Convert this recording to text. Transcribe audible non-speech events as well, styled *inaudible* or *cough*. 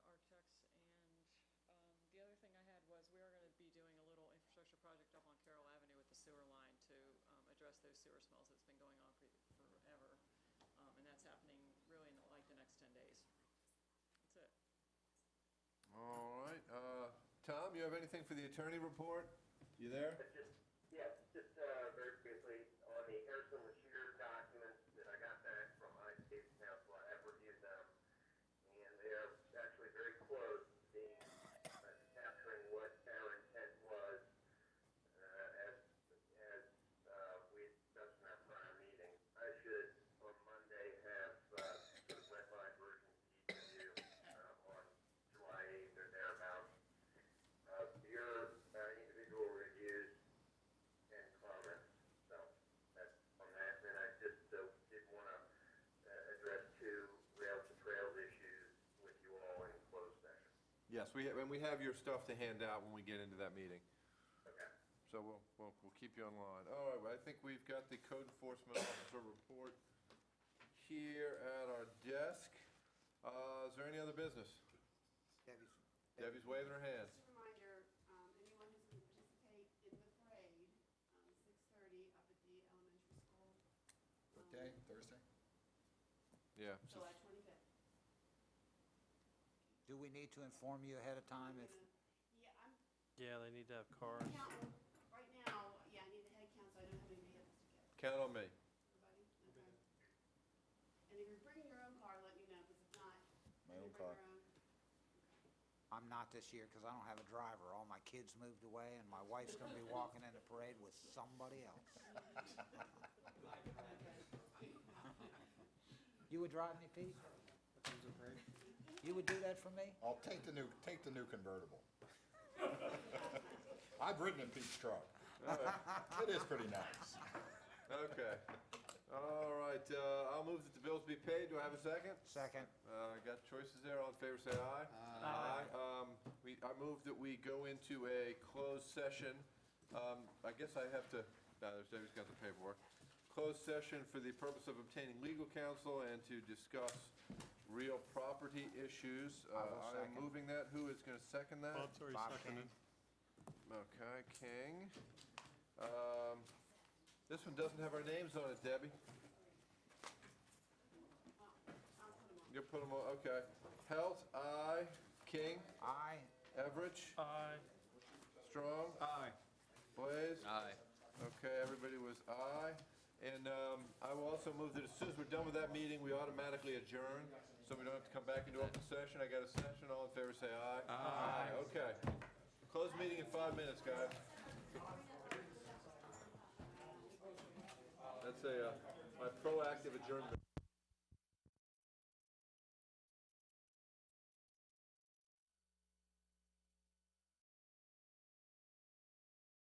um, infrastructure project up on Carroll Avenue with the sewer line to um, address those sewer smells that's been going on pre- forever. Um, And that's happening really in the- like the next 10 days. That's it. All right, uh, Tom, you have anything for the attorney report? You there? But just, yeah, just, uh, very briefly, on the Harrison Lashir documents that I got back from United States Council, I have reviewed them, and they are actually very close to being, uh, capturing what our intent was, uh, as, as, uh, we discussed in our prior meeting. I should, on Monday, have, uh, the wetline version to you, uh, on July eighth or thereabouts. Uh, your, uh, individual reviews and comments, so that's on that. And I just uh, did want to uh, address two rail to trails issues with you all in closed session. Yes, we, have- and we have your stuff to hand out when we get into that meeting, Okay. so we'll, we'll, we'll keep you online. All right, well, I think we've got the code enforcement officer report here at our desk. Uh, is there any other business? Debbie's. Debbie's waving her hands. Just a reminder, um, anyone who's going to participate in the parade, um, 6:30 up at the elementary school. um, What day, Thursday? Yeah, so July 25th. Do we need to inform you ahead of time if, Yeah, I'm, Yeah, they need to have cars. counting right now, yeah, I need the head count, so I don't have any vehicles to get. count on me. Everybody? Okay. And if you're bringing your own car, let me know, because if not. My you own bring car. your own. I'm not this year because I don't have a driver. All my kids moved away and my wife's going to be walking in the parade with somebody else. You would drive me, Pete? You would do that for me? I'll take the new, take the new convertible. *laughs* I've ridden in Pete's truck. It is pretty nice. Okay. All right, uh, I'll move that the bills be paid. Do I have a second? *laughs* Second. Uh, got choices there. All in favor, say aye. Aye. Um, we, I move that we go into a closed session. Um, I guess I have to, no, there's, Debbie's got the paperwork. Closed session for the purpose of obtaining legal counsel and to discuss real property issues. Uh, will I am second. moving that. Who is gonna second that? Bob's already Bob seconded. Okay, King. Um, this one doesn't have our names on it, Debbie. Well, I'll put 'em on. You'll put them on, okay. Helt, aye. King, Aye. Everidge, Aye. Strong. Aye. Blaze. Aye. Okay, everybody was aye. And um, I will also move that as soon as we're done with that meeting, we automatically adjourn, so we don't have to come back into open session. I got a session, all in favor, say aye. Aye. Okay. Close meeting in five minutes, guys. That's a, uh, my proactive adjournment.